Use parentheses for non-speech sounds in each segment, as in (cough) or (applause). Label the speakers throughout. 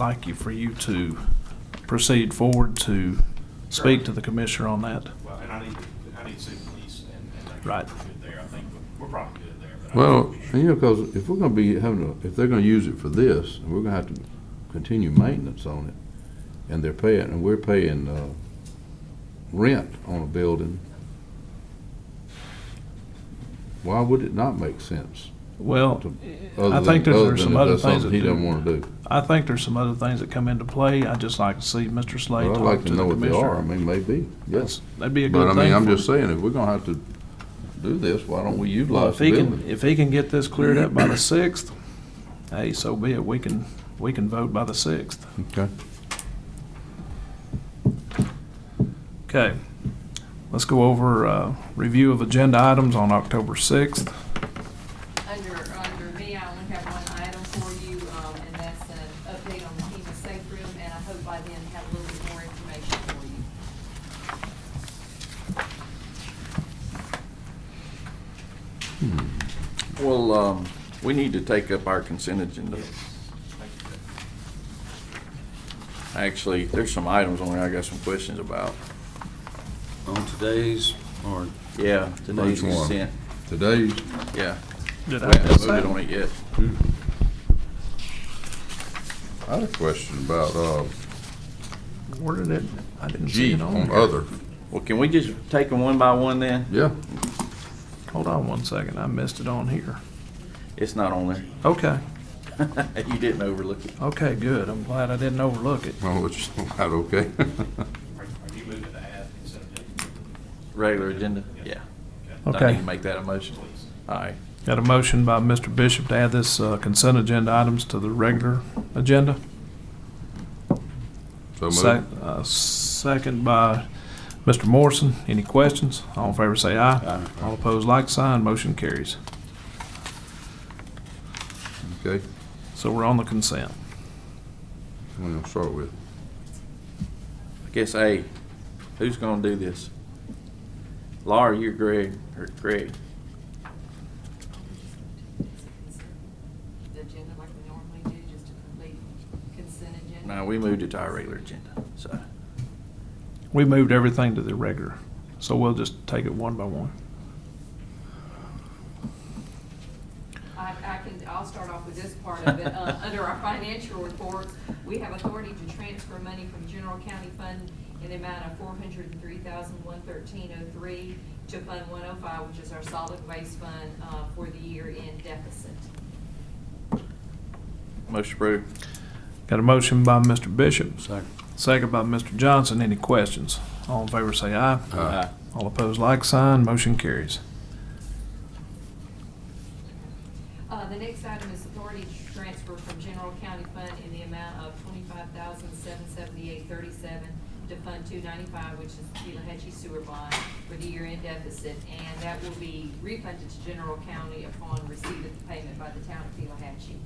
Speaker 1: like you, for you to proceed forward to speak to the commissioner on that.
Speaker 2: Well, and I need, I need to see the police and, and make sure
Speaker 1: Right.
Speaker 2: we're good there, I think, we're probably good there. but I-
Speaker 3: Well, and you know, because if we're gonna be having, a- if they're gonna use it for this, and we're gonna have to continue maintenance on it, and they're paying, and we're paying, uh, rent on a building, why would it not make sense?
Speaker 1: Well,
Speaker 3: to- other
Speaker 1: I think
Speaker 3: than-
Speaker 1: there's
Speaker 3: other
Speaker 1: there's
Speaker 3: than
Speaker 1: some
Speaker 3: if
Speaker 1: other
Speaker 3: that's
Speaker 1: things that
Speaker 3: something He doesn't
Speaker 1: do-
Speaker 3: wanna do.
Speaker 1: I think there's some other things that come into play. I'd just like to see Mr. Slade
Speaker 3: Well, I'd
Speaker 1: talk
Speaker 3: like
Speaker 1: to
Speaker 3: to
Speaker 1: the
Speaker 3: know what they are, I
Speaker 1: commissioner.
Speaker 3: mean, maybe, yes.
Speaker 1: That's, that'd be a
Speaker 3: But
Speaker 1: good
Speaker 3: I
Speaker 1: thing.
Speaker 3: mean, I'm
Speaker 1: for-
Speaker 3: just saying, if we're gonna have to do this, why don't
Speaker 1: Well,
Speaker 3: we utilize
Speaker 1: if
Speaker 3: the
Speaker 1: he
Speaker 3: building?
Speaker 1: can, if he can get this cleared up by the sixth, hey, so be it. We can, we can vote by the sixth.
Speaker 3: Okay.
Speaker 1: Okay, let's go over, uh, review of agenda items on October sixth.
Speaker 4: Under, under me, I only have one item for you, um, and that's an update on the FEMA safe room, and I hope by then have a little bit more information for you.
Speaker 3: Hmm.
Speaker 5: Well, um, we need to take up our consent agenda.
Speaker 2: Yes. Thank you.
Speaker 5: Actually, there's some items on there I got some questions about.
Speaker 6: On today's, or,
Speaker 5: Yeah, today's
Speaker 3: Which one?
Speaker 5: consent,
Speaker 3: Today's,
Speaker 5: yeah.
Speaker 1: Did
Speaker 5: We
Speaker 1: I
Speaker 5: haven't
Speaker 1: miss
Speaker 5: voted on
Speaker 1: that?
Speaker 5: it yet.
Speaker 3: I had a question about, uh,
Speaker 1: Where did it, I didn't see
Speaker 3: G
Speaker 1: it on
Speaker 3: on
Speaker 1: here.
Speaker 3: other,
Speaker 5: Well, can we just take them one by one then?
Speaker 3: yeah.
Speaker 1: Hold on one second, I missed it on here.
Speaker 5: It's not on there.
Speaker 1: Okay,
Speaker 5: (laughs) You didn't overlook it.
Speaker 1: okay, good. I'm glad I didn't overlook it.
Speaker 3: Well, it's not okay. (laughs)
Speaker 2: Are are you moving to add consent agenda,
Speaker 5: Regular agenda? Yeah. I need
Speaker 1: Okay,
Speaker 5: to make that a motion.
Speaker 2: please?
Speaker 5: All right.
Speaker 1: got a motion by Mr. Bishop to add this uh, consent agenda items to the regular agenda.
Speaker 3: So
Speaker 1: Sec-
Speaker 3: moved.
Speaker 1: uh, Second by Mr. Morrison. Any questions? All in favor say aye. All opposed, like sign. Motion carries.
Speaker 3: Okay,
Speaker 1: So we're on the consent.
Speaker 3: I'm gonna start with,
Speaker 5: I guess A, who's gonna do this? Laura, you're Greg, or Greg.
Speaker 4: The agenda like we normally do, just a complete consent agenda.
Speaker 5: No, we moved it to our regular agenda, so.
Speaker 1: We moved everything to the regular, so we'll just take it one by one.
Speaker 4: I, I can, I'll start off with this part of it. Uh, under our financial reports, we have authority to transfer money from general county fund in the amount of four hundred and three thousand, one thirteen oh three to Fund one oh five, which is our solid waste fund, uh, for the year-end deficit.
Speaker 5: Motion approved.
Speaker 1: Got a motion by Mr. Bishop,
Speaker 6: second,
Speaker 1: second by Mr. Johnson. Any questions? All in favor say aye.
Speaker 3: Aye.
Speaker 1: All opposed, like sign. Motion carries.
Speaker 4: Uh, the next item is authority to transfer from general county fund in the amount of twenty-five thousand, seven seventy-eight thirty-seven to Fund two ninety-five, which is the Tallahatchie Sewer Bond for the year-end deficit, and that will be refunded to general county upon receipt of the payment by the town of Tallahatchie.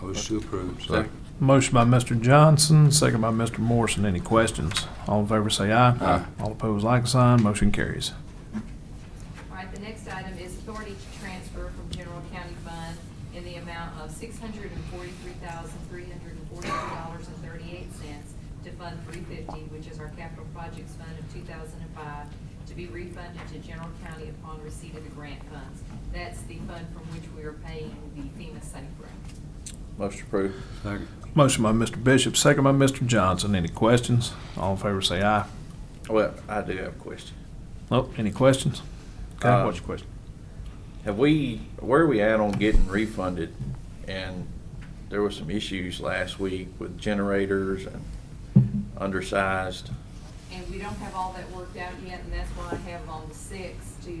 Speaker 6: motion to approve.
Speaker 3: second,
Speaker 1: Motion by Mr. Johnson, second by Mr. Morrison. Any questions? All in favor say aye.
Speaker 3: Aye.
Speaker 1: All opposed, like sign. Motion carries.
Speaker 4: All right, the next item is authority to transfer from general county fund in the amount of six hundred and forty-three thousand, three hundred and forty-two dollars and thirty-eight cents to Fund three fifty, which is our capital projects fund of two thousand and five, to be refunded to general county upon receipt of the grant funds. That's the fund from which we are paying the FEMA safe room.
Speaker 5: Motion approved.
Speaker 6: Second,
Speaker 1: Motion by Mr. Bishop, second by Mr. Johnson. Any questions? All in favor say aye.
Speaker 5: Well, I do have a question.
Speaker 1: Oh, any questions? Okay,
Speaker 5: Uh,
Speaker 1: what's your question?
Speaker 5: Have we, where are we at on getting refunded? And there were some issues last week with generators and undersized.
Speaker 4: And we don't have all that worked out yet, and that's why I have on the sixth to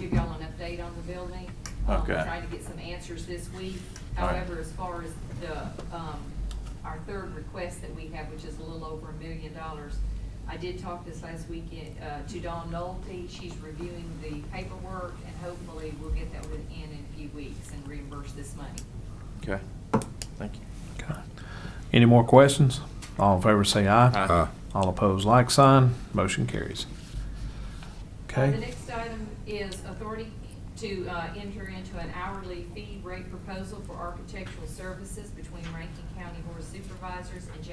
Speaker 4: give y'all an update on the building. Um,
Speaker 5: Okay.
Speaker 4: Trying to get some answers this week.
Speaker 5: All right.
Speaker 4: However, as far as the, um, our third request that we have, which is a little over a million dollars, I did talk this last weekend, uh, to Dawn Nolte. She's reviewing the paperwork, and hopefully we'll get that within in a few weeks and reimburse this money.
Speaker 5: Okay, thank you.
Speaker 1: Okay. Any more questions? All in favor say aye.
Speaker 5: Aye.
Speaker 3: aye,
Speaker 1: All opposed, like sign. Motion carries.
Speaker 4: Uh, The
Speaker 1: Okay,
Speaker 4: next item is authority to uh, enter into an hourly fee rate proposal for architectural services between Rankin County Board of Supervisors and J.